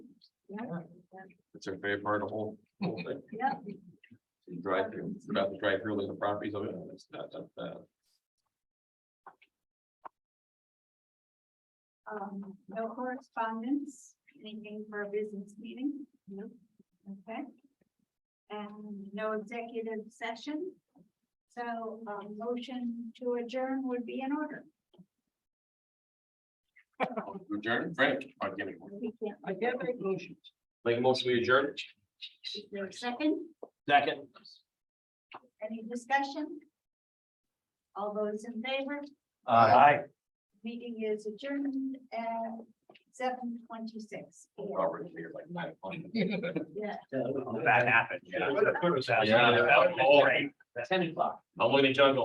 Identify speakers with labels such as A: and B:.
A: It's her favorite part of the whole, whole thing.
B: Yeah.
A: She Drive through, it's about the drive through, like the properties of it, and it's not, that bad.
B: Um, no correspondence, anything for a business meeting? No. Okay. And no executive session. So, um, motion to adjourn would be in order.
A: Adjourn, Frank, i give me one.
B: We can't.
C: I can't make motions.
A: Make a motion, we adjourn.
B: Is there a second,
C: Second.
B: any discussion? All those in favor,
C: Aye.
B: meeting is adjourned at seven twenty-six.
A: Robert, you're like nine o'clock.
B: Yeah.
C: That happened.
A: yeah.
C: What a good was that?
A: Yeah.
C: That was great.
A: I'm looking at John going,